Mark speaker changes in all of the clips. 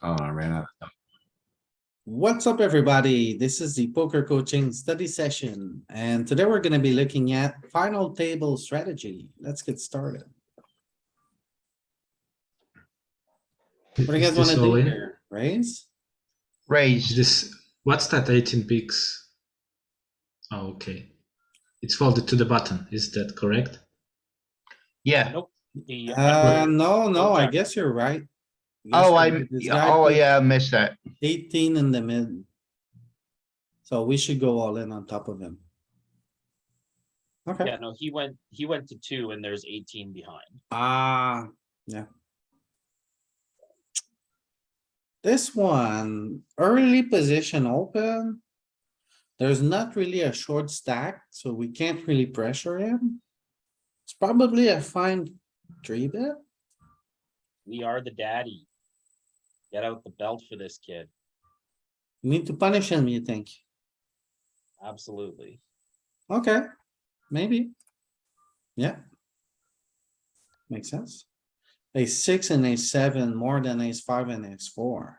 Speaker 1: Oh, I ran out.
Speaker 2: What's up, everybody? This is the poker coaching study session, and today we're gonna be looking at final table strategy. Let's get started. What do you guys
Speaker 3: Is
Speaker 2: wanna
Speaker 3: this
Speaker 2: do
Speaker 3: all in?
Speaker 2: here? Raise?
Speaker 3: Is
Speaker 4: Raise.
Speaker 3: this what's that 18 pigs? Oh, okay. It's folded to the button. Is that correct?
Speaker 4: Yeah.
Speaker 5: Nope. The-
Speaker 2: Uh, no, no, I
Speaker 5: Okay.
Speaker 2: guess you're right.
Speaker 4: Oh, I,
Speaker 2: This guy
Speaker 4: oh,
Speaker 2: put
Speaker 4: yeah, I missed that.
Speaker 2: Eighteen in the mid. So we should go all in on top of him. Okay,
Speaker 5: Yeah, no, he went, he went to two and there's eighteen behind.
Speaker 2: ah, yeah. This one, early position open. There's not really a short stack, so we can't really pressure him. It's probably a fine three bet.
Speaker 5: We are the daddy. Get out the belt for this kid.
Speaker 2: Need to punish him, you think?
Speaker 5: Absolutely.
Speaker 2: Okay, maybe. Yeah. Makes sense. A six and a seven more than ace five and ace four.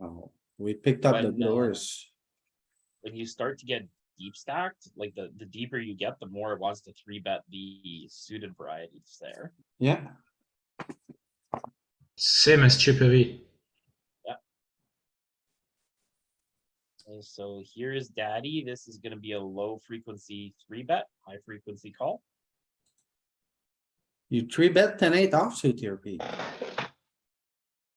Speaker 2: Oh, we picked up
Speaker 5: But
Speaker 2: the
Speaker 5: no.
Speaker 2: doors.
Speaker 5: When you start to get deep stacked, like the, the deeper you get, the more it wants to three bet the suited varieties there.
Speaker 2: Yeah,
Speaker 3: Same as Chippy V.
Speaker 5: And so here is daddy. This is gonna be a low frequency three bet, high frequency call.
Speaker 2: you three bet ten eight offsuit here, Pete.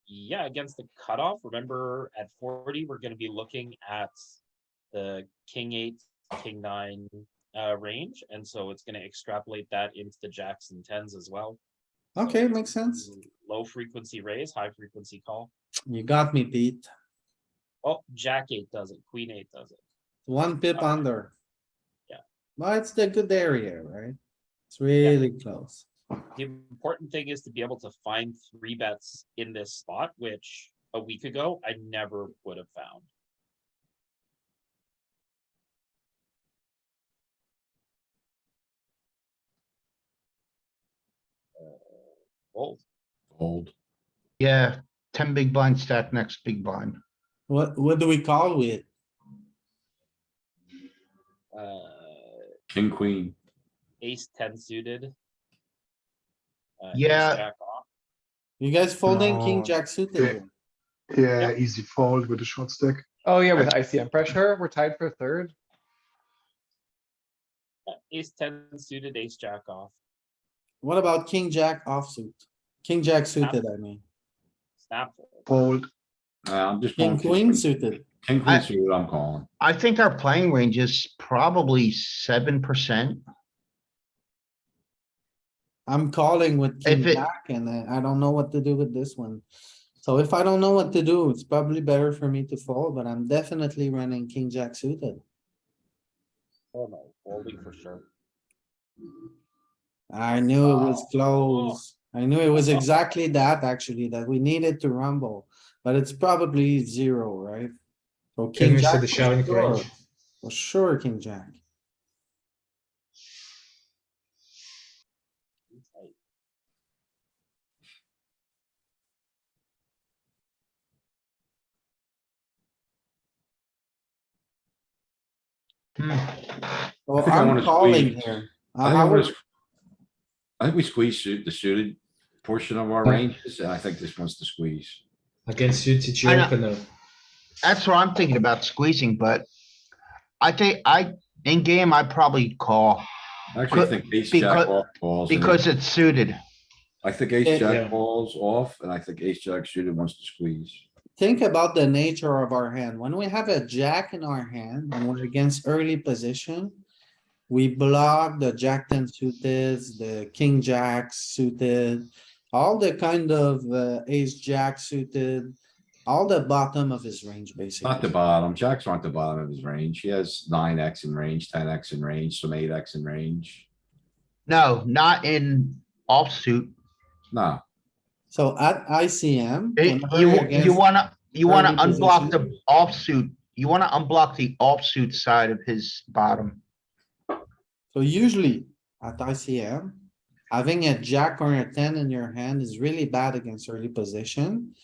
Speaker 5: Yeah, against the cutoff, remember at forty, we're gonna be looking at the king eight, king nine uh range, and so it's gonna extrapolate that into the jacks and tens as well. So
Speaker 2: Okay,
Speaker 5: it's
Speaker 2: makes sense.
Speaker 5: Low frequency raise, high frequency call.
Speaker 2: You got me, Pete.
Speaker 5: Oh, jack eight does it, queen eight does it.
Speaker 2: One pip
Speaker 5: Okay.
Speaker 2: under.
Speaker 5: Yeah.
Speaker 2: Well, it's the good area, right? It's really close.
Speaker 5: The important thing is to be able to find three bets in this spot, which a week ago I never would have found. Uh, Well,
Speaker 1: Old.
Speaker 4: Yeah, ten big blind stack next big blind.
Speaker 2: What, what do we call with?
Speaker 5: uh,
Speaker 1: King, queen.
Speaker 5: ace ten suited. uh, ace
Speaker 4: Yeah.
Speaker 5: jack off.
Speaker 2: You guys folding king
Speaker 6: No.
Speaker 2: jack suited? here?
Speaker 6: Yeah, easy fold with a short stack.
Speaker 7: Oh yeah, with ICM pressure, we're tied for third.
Speaker 5: Uh, Ace ten suited, ace jack off.
Speaker 2: What about king jack offsuit? King jack suited, I mean.
Speaker 1: Ah.
Speaker 5: Snap. fold.
Speaker 6: Fold.
Speaker 1: Uh, I'm just.
Speaker 2: King
Speaker 1: going
Speaker 2: queen suited.
Speaker 1: King,
Speaker 4: I-
Speaker 1: queen suited, I'm calling.
Speaker 4: I think our playing range is probably seven percent.
Speaker 2: I'm calling with king
Speaker 4: If it-
Speaker 2: jack and I, I don't know what to do with this one. So if I don't know what to do, it's probably better for me to fold, but I'm definitely running king jack suited.
Speaker 5: Oh no, folding for sure.
Speaker 2: I knew it was
Speaker 5: Oh.
Speaker 2: close. I knew it was exactly that actually, that we needed to rumble, but it's probably zero, right? So
Speaker 3: Can
Speaker 2: king
Speaker 3: we see
Speaker 2: jack
Speaker 3: the
Speaker 2: for
Speaker 3: showing
Speaker 2: sure.
Speaker 3: range?
Speaker 2: For sure, king jack.
Speaker 5: Tight.
Speaker 4: Hmm.
Speaker 2: Well,
Speaker 1: think I
Speaker 2: Oh, I'm
Speaker 1: wanna
Speaker 2: calling
Speaker 1: squeeze.
Speaker 2: here.
Speaker 1: I think I
Speaker 2: I would-
Speaker 1: wanna s- I think we squeeze suit, the suited portion of our ranges, and I think this one's the squeeze.
Speaker 3: Against UTG
Speaker 4: I know.
Speaker 3: opener.
Speaker 4: That's what I'm thinking about squeezing, but I think I, in game, I probably call
Speaker 1: I actually
Speaker 4: Becau-
Speaker 1: think ace jack
Speaker 4: becau-
Speaker 1: off calls. and
Speaker 4: because it's suited.
Speaker 1: I think
Speaker 2: Yeah.
Speaker 1: ace
Speaker 3: Yeah.
Speaker 1: jack calls off, and I think ace jack suited wants to squeeze.
Speaker 2: think about the nature of our hand. When we have a jack in our hand and we're against early position. We block the jack ten suited, the king jack suited, all the kind of uh, ace jack suited. All the bottom of his range,
Speaker 1: Not the
Speaker 2: basically.
Speaker 1: bottom, jacks aren't the bottom of his range. He has nine X in range, ten X in range, some eight X in range.
Speaker 4: No, not in offsuit.
Speaker 1: No,
Speaker 2: So at ICM.
Speaker 4: It-
Speaker 2: whenever
Speaker 4: You,
Speaker 2: you're
Speaker 4: you
Speaker 2: against-
Speaker 4: wanna, you wanna
Speaker 2: early
Speaker 4: unblock the offsuit. You wanna unblock the offsuit side of his bottom.
Speaker 2: So usually at ICM, having a jack or a ten in your hand is really bad against early position.